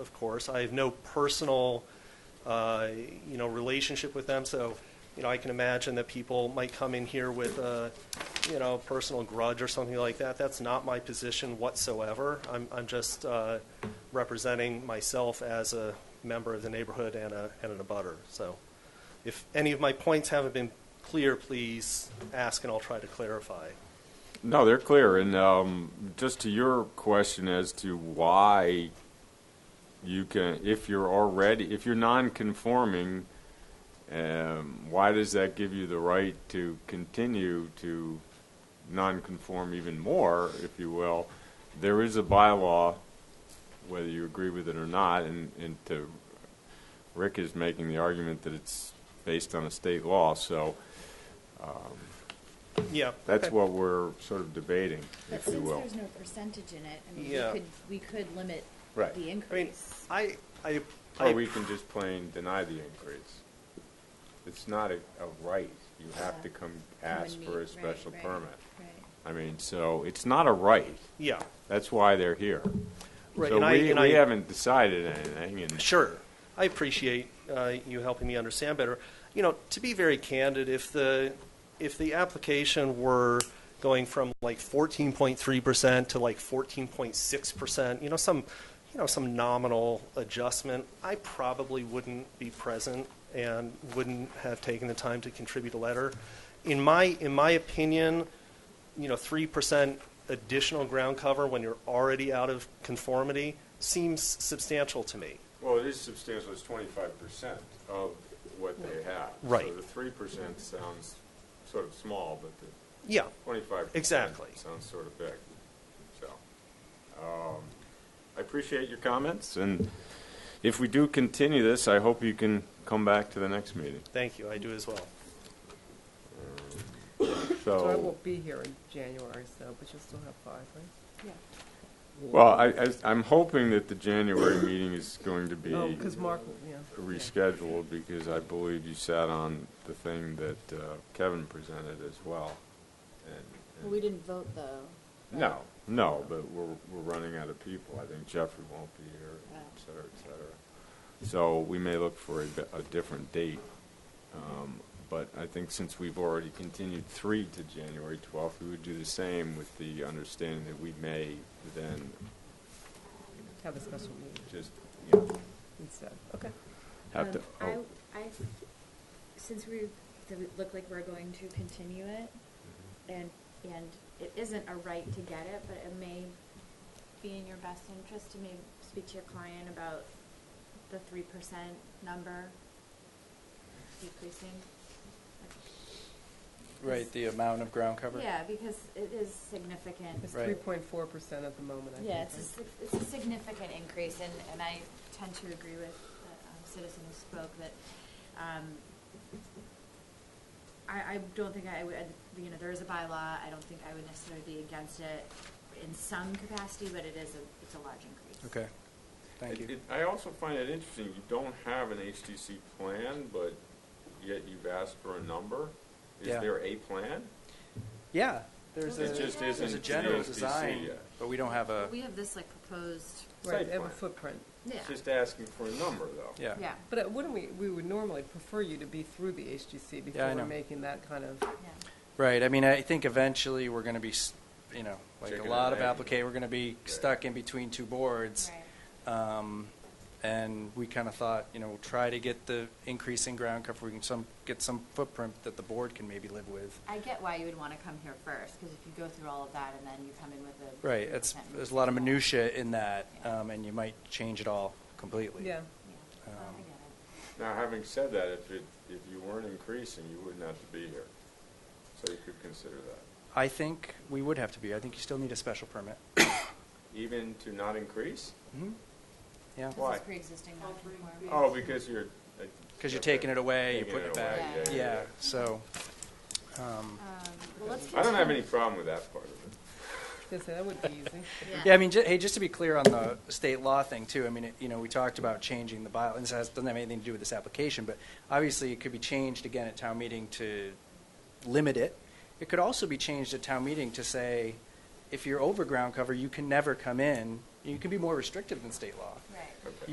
of course. I have no personal, uh, you know, relationship with them, so, you know, I can imagine that people might come in here with a, you know, personal grudge or something like that. That's not my position whatsoever. I'm, I'm just uh, representing myself as a member of the neighborhood and a, and an abutter. So if any of my points haven't been clear, please ask and I'll try to clarify. No, they're clear. And um, just to your question as to why you can, if you're already, if you're non-conforming, um, why does that give you the right to continue to non-conform even more, if you will? There is a bylaw, whether you agree with it or not, and, and to, Rick is making the argument that it's based on a state law, so Yeah. that's okay. what we're sort of debating, But if you since will. there's no percentage in it, I mean, we Yeah. could, we could limit Right. the I mean, increase. I, I, Or I we can just plain deny the increase. It's not a, a right. You have to come ask Come and for a meet, special right, right, permit. right. I mean, so it's not a right. yeah. That's why they're here. Right, So and I- we, and we I- haven't decided anything and. Sure. I appreciate uh, you helping me understand better. You know, to be very candid, if the if the application were going from like 14.3% to like 14.6%, you know, some you know, some nominal adjustment, I probably wouldn't be present and wouldn't have taken the time to contribute a letter. In my in my opinion, you know, three percent additional ground cover when you're already out of conformity seems substantial to me. Well, it is substantial. It's twenty-five percent of what they have. Right. So the three percent sounds sort of small, but the Yeah, twenty-five Exactly. sounds sort of big. So, um, I appreciate your comments, and if we do continue this, I hope you can come back to the next meeting. thank you, I do as well. So I So, won't be here in January, so, but you'll still have five, right? well, I, I- I'm hoping that the January meeting is going to be. Oh, because Mark, yeah. rescheduled because I believe you sat on the thing that uh, Kevin presented as well. And- Well, we didn't vote, though. right? No, no, but we're, we're running out of people. I think Jeffrey won't be here, Right. et cetera, et cetera. So we may look for a, di- a different date. Um, But I think since we've already continued three to January 12th, we would do the same with the understanding that we may then Have a special meeting just, you know, instead, okay. have to. Um, oh. I, I, since we, th- it look like we're going to continue it, Mm-hmm. and, and it isn't a right to get it, but it may be in your best interest to maybe speak to your client about the three percent number decreasing. Right, the amount of ground cover? Yeah, because it is significant. It's Right. three point four percent at the moment, I think. Yeah, it's a, right? sig- it's a significant increase, and, and I tend to agree with the um, citizen who spoke that, um, I, I don't think I would, uh, you know, there is a bylaw, I don't think I would necessarily be against it in some capacity, but it is a, it's a large increase. Okay, thank It- you. it- I also find it interesting, you don't have an HTC plan, but yet you've asked for a number. Is Yeah. there a plan? Yeah, there's a, It just there's isn't a to the general SBC design, yet. but we don't have a, We have this like proposed, Right, they have a Site plan. footprint. yeah, It's just asking for a number, though. yeah. yeah, But uh, wouldn't we, we would normally prefer you to be through the HGC before I know. we're making that kind of, yeah. Right, I mean, I think eventually we're going to be, s- you know, like Chicken a and lot of egg. applicate, we're going to be stuck in between two boards. Um, And we kind of thought, you know, try to get the increase in ground cover, we can some, get some footprint that the board can maybe live with. I get why you would wanna come here first, cause if you go through all of that and then you come in with a. Right, it's, 3%. there's a lot of minutia in that, Yeah. um, and you might change it all completely. yeah. Yeah, no, I Um, get it. Now, having said that, if it, if you weren't increasing, you wouldn't have to be here. So you could consider that. I think we would have to be, I think you still need a special permit. Even to not increase? Mhm. Yeah. Why? This is pre-existing non-conforming. Oh, because you're. Because you're taking it away, you're Taking putting it back. away, Yeah. Yeah, so, Oh. um, Um, Well, let's. I don't have any continue. problem with that part of it. Yes, that would be easy. yeah, I mean, ju- hey, just to be clear on the state law thing too, I mean, it- you know, we talked about changing the bylaw, and this has, doesn't have anything to do with this application, but obviously it could be changed again at town meeting to limit it. It could also be changed at town meeting to say, if you're over ground cover, you can never come in, you can be more restrictive than state law. Right. Okay.